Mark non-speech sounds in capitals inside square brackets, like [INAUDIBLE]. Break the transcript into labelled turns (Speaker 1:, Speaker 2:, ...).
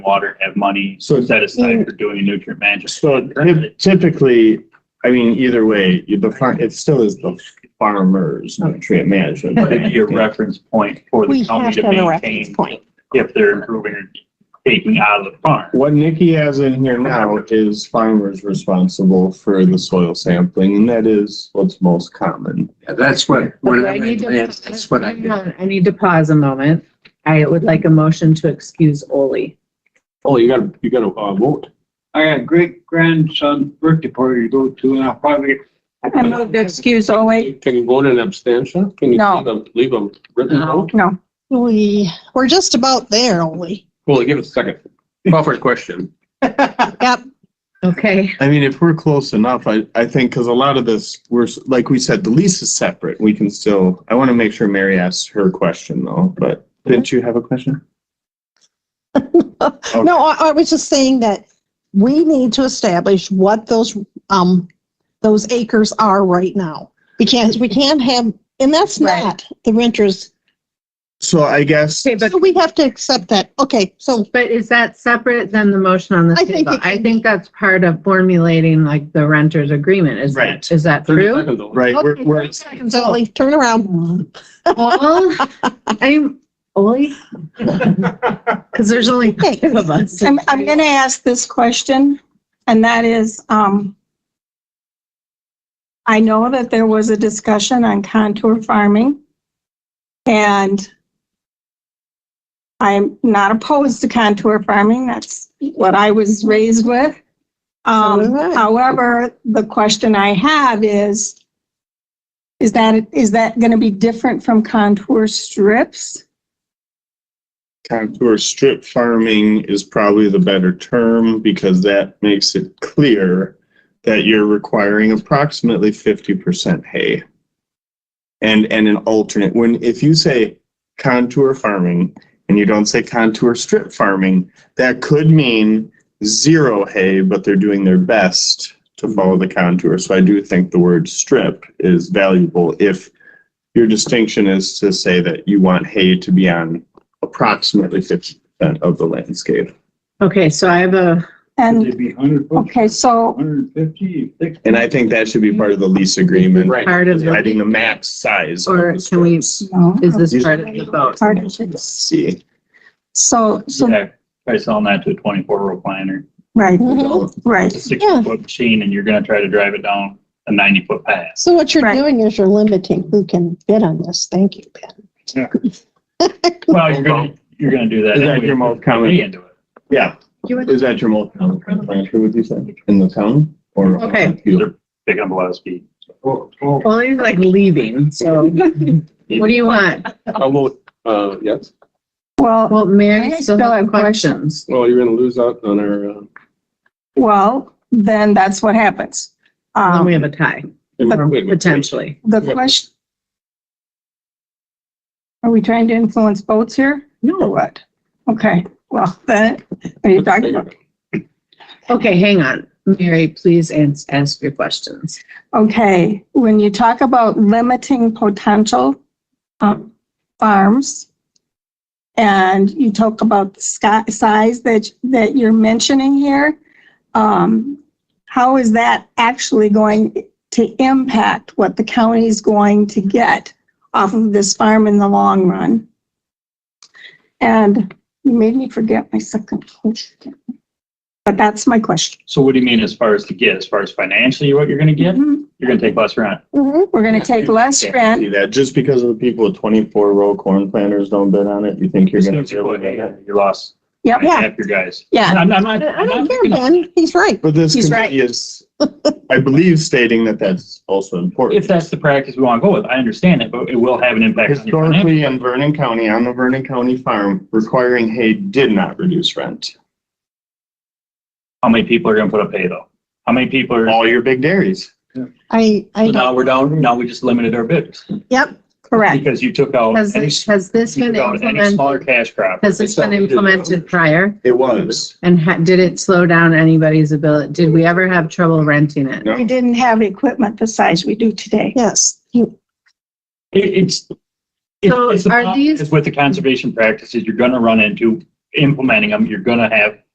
Speaker 1: water, have money
Speaker 2: So-
Speaker 1: set aside for doing a nutrient management.
Speaker 2: So typ- typically, I mean, either way, you- the farm, it still is the farmer's nutrient management.
Speaker 1: But it'd be
Speaker 2: [LAUGHS]
Speaker 1: a reference point for
Speaker 3: We
Speaker 1: the
Speaker 3: have
Speaker 1: county
Speaker 3: to
Speaker 1: to
Speaker 3: have a reference
Speaker 1: maintain
Speaker 3: point.
Speaker 1: if they're improving or taking out of the farm.
Speaker 2: What Nikki has in here now is farmers responsible for the soil sampling, and that is what's most common.
Speaker 4: Yeah, that's what,
Speaker 5: Okay,
Speaker 4: what
Speaker 5: I
Speaker 4: I
Speaker 5: need
Speaker 4: meant,
Speaker 5: to-
Speaker 4: that's what I
Speaker 5: hang
Speaker 4: meant.
Speaker 5: on, I need to pause a moment. I would like a motion to excuse Oli.
Speaker 2: Oh, you gotta, you gotta, uh, vote.
Speaker 6: I got a great grandson's birthday party to go to and I'll probably.
Speaker 3: I moved to excuse Ole.
Speaker 7: Can you vote in abstention? Can you
Speaker 3: No.
Speaker 7: leave a- leave a written
Speaker 4: No.
Speaker 7: vote?
Speaker 3: No, we, we're just about there, Ole.
Speaker 7: Well, give it a second. Crawford question.
Speaker 3: Yep.
Speaker 5: Okay,
Speaker 2: I mean, if we're close enough, I, I think, because a lot of this, we're, s- like we said, the lease is separate. We can still, I want to make sure Mary asks her question though, but didn't you have a question?
Speaker 3: No, I, I was just saying that we need to establish what those, um, those acres are right now. Because we can't have, and that's
Speaker 5: Right.
Speaker 3: not the renters.
Speaker 2: So I guess,
Speaker 5: okay, but,
Speaker 3: So we have to accept that. Okay, so
Speaker 5: but is that separate than the motion on the
Speaker 3: I think
Speaker 5: table?
Speaker 3: it
Speaker 5: I
Speaker 3: can
Speaker 5: think that's part of formulating like the renter's agreement, is
Speaker 2: Right.
Speaker 5: that, is that
Speaker 7: Thirty
Speaker 5: true?
Speaker 7: seconds, Ole.
Speaker 2: right, we're,
Speaker 5: Okay,
Speaker 2: we're,
Speaker 5: thirty seconds,
Speaker 3: so
Speaker 5: Oli.
Speaker 3: like, turn around.
Speaker 5: [LAUGHS] All, I'm,
Speaker 7: [LAUGHS]
Speaker 5: Oli? Because there's only
Speaker 3: Okay.
Speaker 5: five of us.
Speaker 8: I'm, I'm gonna ask this question, and that is, um, I know that there was a discussion on contour farming, and I'm not opposed to contour farming, that's what I was raised with.
Speaker 3: So
Speaker 8: Um,
Speaker 3: was I.
Speaker 8: however, the question I have is, is that, is that gonna be different from contour strips?
Speaker 2: contour strip farming is probably the better term because that makes it clear that you're requiring approximately fifty percent hay. And, and an alternate, when, if you say contour farming and you don't say contour strip farming, that could mean zero hay, but they're doing their best to follow the contour. So I do think the word strip is valuable if your distinction is to say that you want hay to be on approximately fifty percent of the landscape.
Speaker 5: Okay, so I have a,
Speaker 8: And,
Speaker 6: It'd be hundred
Speaker 8: okay, so
Speaker 6: Hundred fifty, sixty.
Speaker 2: And I think that should be part of the lease agreement.
Speaker 7: Right.
Speaker 5: part of the,
Speaker 2: Adding the max size. of
Speaker 5: Or
Speaker 2: the
Speaker 5: can we-
Speaker 2: strips.
Speaker 8: no,
Speaker 5: is this part of the vote?
Speaker 8: part of
Speaker 2: Let's
Speaker 8: it.
Speaker 2: See.
Speaker 8: So, so,
Speaker 1: Yeah, Try selling that to a twenty-four row planter,
Speaker 8: right,
Speaker 3: Mhm.
Speaker 8: right.
Speaker 1: It's a sixty-foot machine, and you're gonna try to drive it down a ninety-foot pass.
Speaker 3: So what you're
Speaker 8: Right.
Speaker 3: doing is you're limiting who can bid on this. Thank you, Ben.
Speaker 1: Well, you're gonna, you're gonna do that.
Speaker 2: Is that
Speaker 1: anyway.
Speaker 2: your most common-
Speaker 1: Way into it.
Speaker 2: Yeah, is that your multi planter, would you say, in the town or?
Speaker 5: Okay.
Speaker 2: Field?
Speaker 1: Picking up a lot of speed.
Speaker 7: Oh.
Speaker 5: Oli's like leaving, so what do you want?
Speaker 7: I'll vote, uh, yes.
Speaker 8: Well,
Speaker 5: Well, Mary, still have questions.
Speaker 7: Well, you're gonna lose out on our, uh,
Speaker 8: well, then that's what happens.
Speaker 5: And Then we have
Speaker 8: Um,
Speaker 5: a tie,
Speaker 7: wait a minute, wait.
Speaker 5: potentially.
Speaker 8: the question. Are we trying to influence votes here? Or
Speaker 5: No.
Speaker 8: what? Okay, well, then, are you talking about?
Speaker 5: Okay, hang on. Mary, please ans- ask your questions.
Speaker 8: Okay, when you talk about limiting potential um, farms, and you talk about the sky- size that, that you're mentioning here, um, how is that actually going to impact what the county is going to get off of this farm in the long run? And you made me forget my second question. But that's my question.
Speaker 1: So what do you mean as far as to get, as far as financially, what you're gonna get?
Speaker 8: We're
Speaker 1: You're gonna take less rent.
Speaker 3: Mhm.
Speaker 8: going to Mm-hmm. take less rent
Speaker 2: See that, just because of the people with twenty-four row corn planters don't bid on it, you think you're
Speaker 1: As soon
Speaker 2: gonna.
Speaker 1: as You put hay in, you lost.
Speaker 8: Yep.
Speaker 1: Half your guys.
Speaker 8: Yeah.
Speaker 1: I'm, I'm not.
Speaker 3: I
Speaker 1: I'm
Speaker 3: don't
Speaker 1: not
Speaker 3: care,
Speaker 1: picking on-
Speaker 3: Ben. He's right.
Speaker 2: But this
Speaker 8: He's
Speaker 2: committee is, I believe stating that that's also important.
Speaker 1: If that's the practice we wanna go with, I understand it, but it will have an impact on your financial.
Speaker 2: Historically, in Vernon County, on the Vernon County farm, requiring hay did not reduce rent.
Speaker 1: How many people are gonna put up hay though? How many people are?
Speaker 2: All your big dairies.
Speaker 3: I, I,
Speaker 1: So now we're down, now we just limited our bids.
Speaker 8: correct.
Speaker 1: Because you took out.
Speaker 5: Has,
Speaker 1: any-
Speaker 5: this- has this
Speaker 1: you
Speaker 5: been
Speaker 1: took out Any
Speaker 5: implemented,
Speaker 1: smaller cash crop.
Speaker 5: has this been implemented prior?
Speaker 2: It was.
Speaker 5: And ha- did it slow down anybody's ability? Did we ever have trouble renting it?
Speaker 2: No.
Speaker 8: We didn't have equipment the size we do today.
Speaker 3: yes. You-
Speaker 1: It- It's. it-
Speaker 5: So
Speaker 1: it's the
Speaker 5: are
Speaker 1: problem
Speaker 5: these-
Speaker 1: is With the conservation practices, you're gonna run into implementing them, you're gonna have